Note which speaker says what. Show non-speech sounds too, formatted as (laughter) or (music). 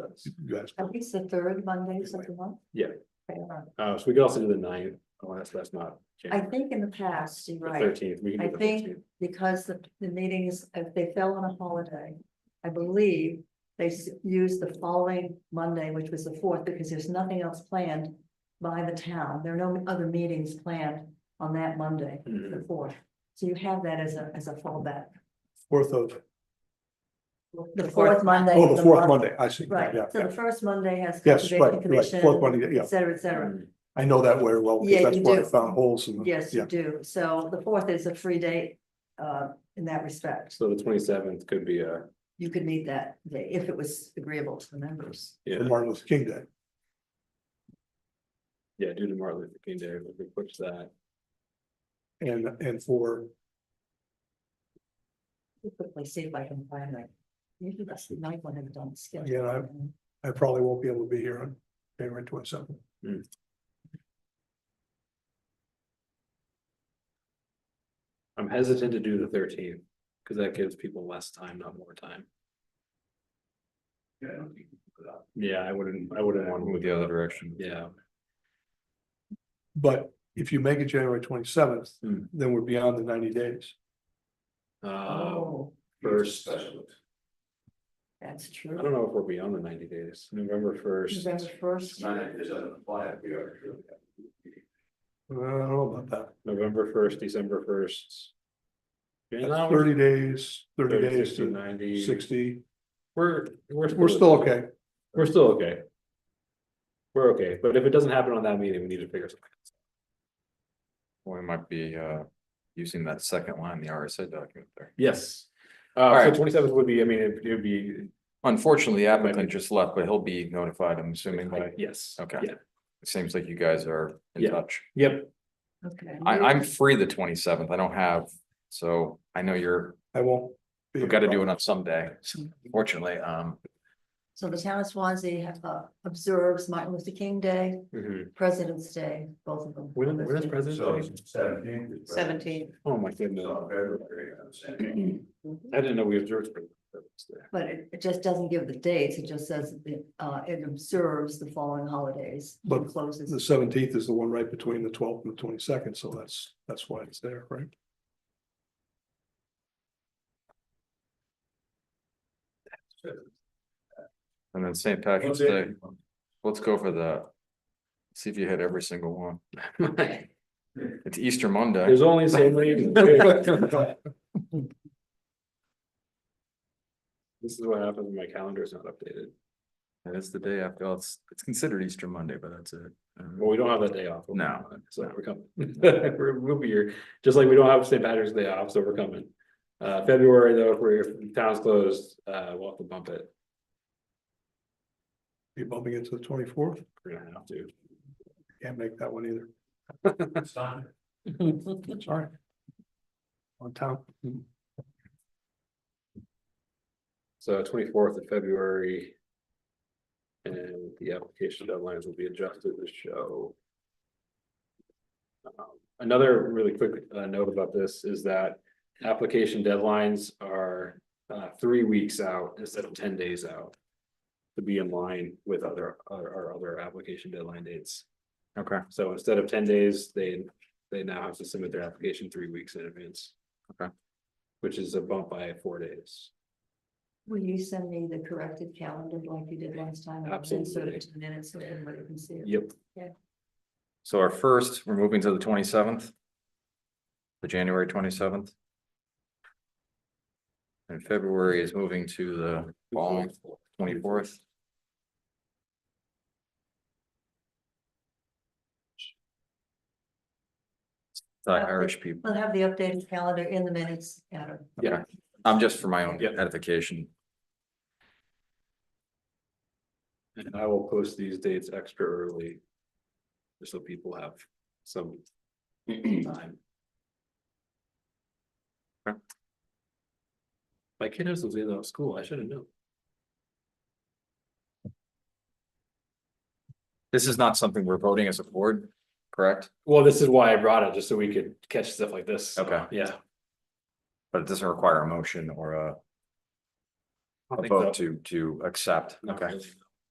Speaker 1: that's, you guys.
Speaker 2: At least the third Mondays of the month?
Speaker 1: Yeah.
Speaker 2: Okay, all right.
Speaker 1: Uh, so we could also do the ninth, unless that's not.
Speaker 2: I
Speaker 1: January.
Speaker 2: think in the past, you're
Speaker 1: The
Speaker 2: right,
Speaker 1: thirteenth, we
Speaker 2: I
Speaker 1: can do the
Speaker 2: think-
Speaker 1: fifteenth.
Speaker 2: because the, the meetings, if they fell on a holiday, I believe they s- used the following Monday, which was the fourth, because there's nothing else planned by the town. There are no other meetings planned on that Monday,
Speaker 1: Mm-hmm.
Speaker 2: the fourth. So you have that as a, as a fallback,
Speaker 3: Fourth of,
Speaker 2: the fourth Monday.
Speaker 3: oh,
Speaker 2: of
Speaker 3: the fourth
Speaker 2: month.
Speaker 3: Monday, I see.
Speaker 2: Right,
Speaker 3: Yeah,
Speaker 2: so
Speaker 3: yeah.
Speaker 2: the first Monday has.
Speaker 3: Yes, right,
Speaker 2: Conservation
Speaker 3: right,
Speaker 2: Commission,
Speaker 3: fourth Monday, yeah.
Speaker 2: Et cetera, et cetera.
Speaker 1: Mm-hmm.
Speaker 3: I know that very well,
Speaker 2: Yeah,
Speaker 3: because that's
Speaker 2: you
Speaker 3: why I
Speaker 2: do.
Speaker 3: found holes in. the-
Speaker 2: Yes,
Speaker 3: Yeah,
Speaker 2: you do. So the fourth is a free date, uh, in that respect.
Speaker 1: So the twenty-seventh could be a,
Speaker 2: You could meet that day if it was agreeable to the members.
Speaker 1: yeah,
Speaker 3: and Martin Luther King Day.
Speaker 1: yeah, due to Martin Luther King Day, we could push that.
Speaker 3: And, and for,
Speaker 2: Let me Quickly see if I can find that. Maybe that's the night when I've done skip.
Speaker 3: Yeah, I probably won't be able to be here on January twenty seventh.
Speaker 1: Hmm. I'm hesitant to do the thirteenth, because that gives people less time, not more time.
Speaker 3: Yeah, I
Speaker 1: Yeah, I wouldn't, I wouldn't want to move
Speaker 4: Move the other direction.
Speaker 1: Yeah,
Speaker 3: But if you make it January twenty seventh,
Speaker 1: Hmm.
Speaker 3: then we're beyond the ninety days.
Speaker 1: uh,
Speaker 2: Oh,
Speaker 1: first, I
Speaker 2: that's true.
Speaker 1: don't know if we're beyond the ninety days, November first.
Speaker 2: November first,
Speaker 3: Uh, I don't know about that.
Speaker 1: November first, December first.
Speaker 3: That's Thirty days, thirty days
Speaker 1: Thirty,
Speaker 3: to
Speaker 1: ninety,
Speaker 3: sixty,
Speaker 1: we're, we're.
Speaker 3: we're still okay.
Speaker 1: We're still okay. We're okay, but if it doesn't happen on that meeting, we need to figure something.
Speaker 4: We might be uh using that second line, the RSA document there.
Speaker 1: Yes.
Speaker 4: All
Speaker 1: Uh, so
Speaker 4: right.
Speaker 1: twenty seventh would be, I mean, it it would be,
Speaker 4: Unfortunately, the
Speaker 1: Might
Speaker 4: applicant
Speaker 1: be-
Speaker 4: just left, but he'll be notified, I'm assuming, by, it
Speaker 1: yes.
Speaker 4: Okay.
Speaker 1: Yeah,
Speaker 4: seems like you guys are
Speaker 1: Yeah.
Speaker 4: in touch.
Speaker 1: yep,
Speaker 2: okay.
Speaker 4: I I'm free the twenty seventh, I don't have, so I know you're,
Speaker 3: I won't. be-
Speaker 4: we've got to do it up someday, fortunately, um.
Speaker 2: So the town of Swansea uh, observes Martin Luther King Day,
Speaker 1: mhm.
Speaker 2: President's Day, both of them.
Speaker 1: When, when is President's Day?
Speaker 2: Seventeenth,
Speaker 1: Oh, my goodness. I didn't know we observed. President's Day.
Speaker 2: Mhm. but it, it just doesn't give the dates. It just says that, uh, it observes the following holidays. and
Speaker 3: But
Speaker 2: Closes.
Speaker 3: The seventeenth is the one right between the twelfth and the twenty second, so that's, that's why it's there, right?
Speaker 4: And then St. Patrick's Day, let's go for the. See if you hit every single one,
Speaker 1: (laughs)
Speaker 4: it's Easter Monday,
Speaker 1: There's only so many. (laughs) This is what happens when my calendar is not updated.
Speaker 4: and it's the day after, well, it's it's considered Easter Monday, but that's it. Um,
Speaker 1: Well, we don't have that day off. We're
Speaker 4: No.
Speaker 1: coming. So we're coming. (laughs) We're- We'll be here, just like we don't have St. Patrick's Day off, so we're coming. Uh, February though, if we're, if the town's closed, uh, we'll have to bump it.
Speaker 3: You bumping into the twenty fourth,
Speaker 1: We're gonna have to.
Speaker 3: can't make that one either, sorry. On town,
Speaker 1: So twenty-fourth of February. And the application deadlines will be adjusted to show. Um, Another really quick uh, note about this is that application deadlines are uh, three weeks out instead of ten days out. To be in line with other, our, our other application deadline dates.
Speaker 4: Okay,
Speaker 1: So instead of ten days, they, they now have to submit their application three weeks in advance.
Speaker 4: Okay.
Speaker 1: Which is a bump by four days.
Speaker 2: Will you send me the corrected calendar like you did last time? and then Sort
Speaker 1: Absolutely.
Speaker 2: of two minutes so everybody can see it.
Speaker 1: Yep,
Speaker 4: so our first, we're moving to the twenty seventh. The January twenty seventh. And February is moving to the following twenty fourth. The Irish people,
Speaker 2: We'll have the updated calendar in the minutes, Adam.
Speaker 4: yeah, I'm just for my own
Speaker 1: Yeah.
Speaker 4: edification,
Speaker 1: and I will post these dates extra early. Just so people have some (clears throat) time.
Speaker 4: Okay.
Speaker 1: My kid has those in at school, I should have known.
Speaker 4: this is not something we're voting as a board, correct?
Speaker 1: Well, this is why I brought it, just so we could catch stuff like this. so,
Speaker 4: Okay.
Speaker 1: Yeah.
Speaker 4: But it doesn't require a motion or a
Speaker 1: I
Speaker 4: a
Speaker 1: think so.
Speaker 4: vote to to accept,
Speaker 1: Not
Speaker 4: okay,
Speaker 1: really, no.